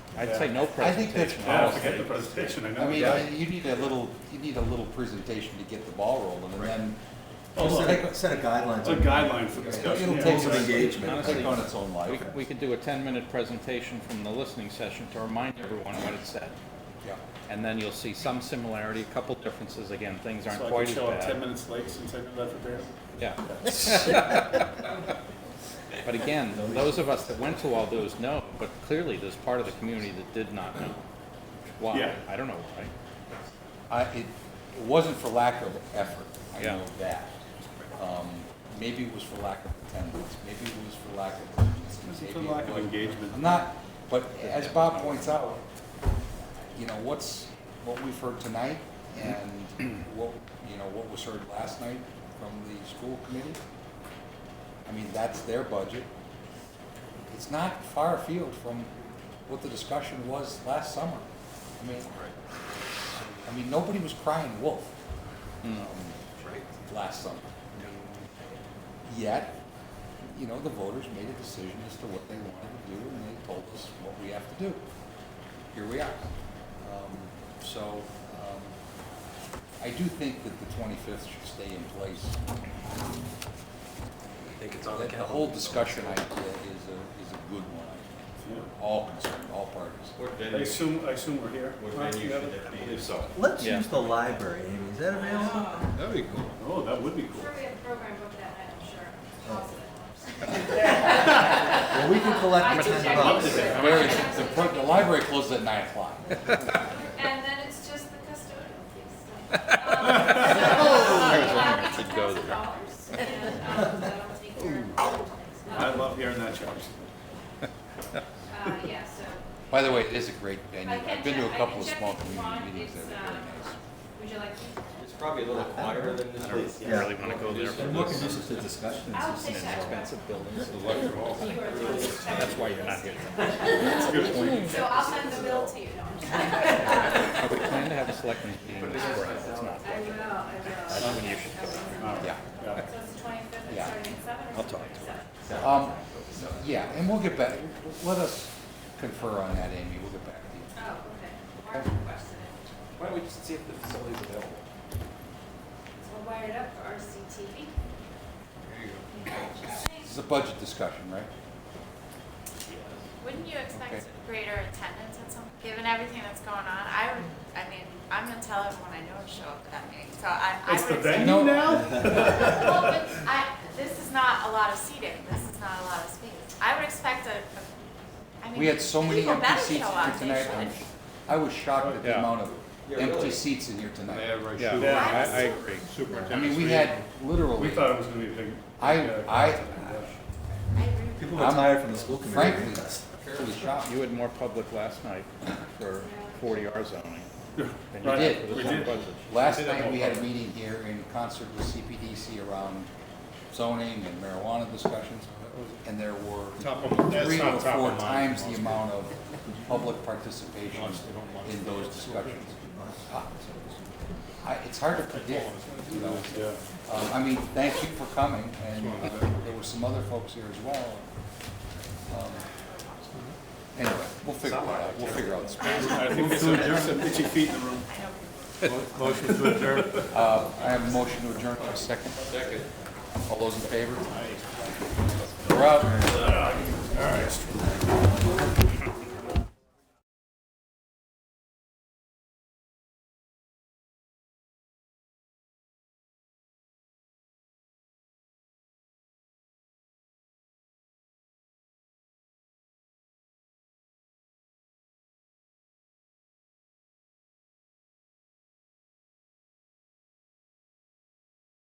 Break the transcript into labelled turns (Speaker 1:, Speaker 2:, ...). Speaker 1: I'd say no
Speaker 2: I think that's
Speaker 1: presentation,
Speaker 2: policy.
Speaker 3: Yeah,
Speaker 1: honestly.
Speaker 3: forget the presentation, I know.
Speaker 2: I mean,
Speaker 3: Yeah.
Speaker 2: I- you need a little, you need a little presentation to get the ball rolling, and then
Speaker 3: Oh,
Speaker 4: Just
Speaker 3: look,
Speaker 4: Set a- set a guidelines.
Speaker 3: It's a guideline for discussion.
Speaker 2: it'll
Speaker 3: yeah.
Speaker 2: take some
Speaker 3: Exactly.
Speaker 4: engagement.
Speaker 2: It'll take on its own
Speaker 1: We,
Speaker 2: life.
Speaker 1: we could do a ten-minute presentation from the listening session to remind everyone what it said.
Speaker 2: Yeah.
Speaker 1: And then you'll see some similarity, a couple differences, again, things aren't
Speaker 3: So I
Speaker 1: quite
Speaker 3: can
Speaker 1: as
Speaker 3: show up ten
Speaker 1: bad.
Speaker 3: minutes late since I've been left for bear.
Speaker 1: Yeah. But again, those of us that went to all those know, but clearly there's part of the community that did not know. Why?
Speaker 3: Yeah.
Speaker 1: I don't know why.
Speaker 2: I, it, it wasn't for lack of effort, I
Speaker 1: Yeah.
Speaker 2: know that. Um, maybe it was for lack of attendance, maybe it was for lack of urgency.
Speaker 3: This is
Speaker 2: maybe
Speaker 3: for
Speaker 2: it
Speaker 3: lack of
Speaker 2: was-
Speaker 3: engagement.
Speaker 2: I'm not, but as Bob points out, you know, what's, what we've heard tonight and what, you know, what was heard last night from the school committee, I mean, that's their budget. It's not far afield from what the discussion was last summer. I mean, I mean, nobody was crying wolf um, last summer. Yet, you know, the voters made a decision as to what they wanted to do, and they told us what we have to do. Here we are. Um, So, um, I do think that the 25th should stay in place. That The whole discussion idea is a, is a good one, I think,
Speaker 3: Yeah.
Speaker 2: for all concerned, all parties.
Speaker 5: What
Speaker 3: I
Speaker 5: venue,
Speaker 3: assume, I assume we're here.
Speaker 5: what
Speaker 3: Right,
Speaker 5: venue
Speaker 3: together?
Speaker 5: should that be? If so,
Speaker 4: Let's
Speaker 1: Yeah.
Speaker 4: use the library, Amy, is that available?
Speaker 6: That'd be cool.
Speaker 3: Oh, that would be
Speaker 7: I'm
Speaker 3: cool.
Speaker 7: sure we have a program booked that night, I'm sure.
Speaker 1: Oh.
Speaker 7: Positive.
Speaker 4: Well, we can collect the
Speaker 7: I
Speaker 4: ten
Speaker 7: can
Speaker 4: bucks.
Speaker 7: check.
Speaker 2: Very- the pro- the library closes at 9 o'clock.
Speaker 7: And then it's just the custodial piece. Um, Oh! Should go there. And, um, that'll take care of all things.
Speaker 3: I
Speaker 7: Um,
Speaker 3: love hearing that charge.
Speaker 7: Uh, yeah, so
Speaker 2: By the way, it is a great venue.
Speaker 7: I can
Speaker 2: I've been to
Speaker 7: check-
Speaker 2: a
Speaker 7: I
Speaker 2: couple
Speaker 7: can
Speaker 2: of
Speaker 7: check
Speaker 2: small
Speaker 7: if you want.
Speaker 2: community meetings there.
Speaker 7: It's,
Speaker 2: They're very
Speaker 7: um,
Speaker 2: nice.
Speaker 7: would you like to?
Speaker 5: it's probably a little quieter than this place.
Speaker 4: Yeah.
Speaker 1: Really wanna go there for
Speaker 4: And more
Speaker 1: this
Speaker 4: conducive to discussion.
Speaker 7: I would say so.
Speaker 1: expensive buildings.
Speaker 7: You are the one who's checking.
Speaker 1: That's why you're not here.
Speaker 3: That's a good point.
Speaker 7: So I'll send the bill to you. No, I'm just-
Speaker 1: But We plan to have a selectmen's meeting this spring, it's not.
Speaker 7: I will, I
Speaker 1: That's
Speaker 7: will.
Speaker 1: when you should go.
Speaker 3: All right.
Speaker 2: Yeah.
Speaker 3: Yeah.
Speaker 7: So it's the twenty-fifth,
Speaker 2: Yeah.
Speaker 7: it's starting at seven or
Speaker 1: I'll talk
Speaker 7: something?
Speaker 1: to her.
Speaker 7: Seven.
Speaker 2: Um, yeah, and we'll get back, let us confer on that, Amy, we'll get back to you.
Speaker 7: Oh, okay. Mark requested it.
Speaker 5: Why don't we just see if the facility's available?
Speaker 7: So we'll wire it up for RCTV.
Speaker 2: This is a budget discussion, right?
Speaker 8: Wouldn't you
Speaker 2: Okay.
Speaker 8: expect greater attendance at some, given everything that's going on? I would, I mean, I'm gonna tell everyone I know to show up at that meeting, so I, I
Speaker 3: It's the
Speaker 8: would expect.
Speaker 3: venue
Speaker 2: No.
Speaker 3: now?
Speaker 8: Well, but I, this is not a lot of seating, this is not a lot of space. I would expect a, a- I mean.
Speaker 2: We had so many
Speaker 8: people
Speaker 2: empty
Speaker 8: better
Speaker 2: seats
Speaker 8: show up,
Speaker 2: here
Speaker 8: they
Speaker 2: tonight,
Speaker 8: should.
Speaker 2: I'm sh- I was shocked at the
Speaker 1: Yeah.
Speaker 2: amount of
Speaker 5: Yeah,
Speaker 2: empty
Speaker 5: really.
Speaker 2: seats in here tonight.
Speaker 1: Yeah,
Speaker 3: Yeah.
Speaker 1: I, I agree.
Speaker 2: I mean, we had
Speaker 3: We
Speaker 2: literally,
Speaker 3: thought it was gonna be a big.
Speaker 2: I-
Speaker 3: yeah,
Speaker 2: I-
Speaker 3: yeah.
Speaker 8: I agree with you.
Speaker 4: People are
Speaker 2: I'm-
Speaker 4: tired from the school committee.
Speaker 2: frankly, really shocked.
Speaker 1: You had more public last night for forty R zoning. than you for
Speaker 3: Right.
Speaker 2: did.
Speaker 1: the
Speaker 3: We
Speaker 1: town
Speaker 3: did.
Speaker 1: budget.
Speaker 2: Last
Speaker 3: We did have
Speaker 2: night, we
Speaker 3: more
Speaker 2: had a meeting here in concert with CPDC around zoning and marijuana discussions, and there were
Speaker 6: Top of, that's
Speaker 2: three or
Speaker 6: not top
Speaker 2: four
Speaker 6: of mind.
Speaker 2: times the amount of public participation in those discussions. Uh, I, it's hard to predict, you know.
Speaker 3: Yeah.
Speaker 2: Um, I mean, thank you for coming, and uh, there were some other folks here as well. Um, Anyway, we'll figure it out, we'll figure out. this.
Speaker 3: I think there's some, there's some itchy feet in the room.
Speaker 6: Motion to adjourn.
Speaker 2: Uh, I have a motion to adjourn, a second.
Speaker 5: Second.
Speaker 2: All those in favor? We're out.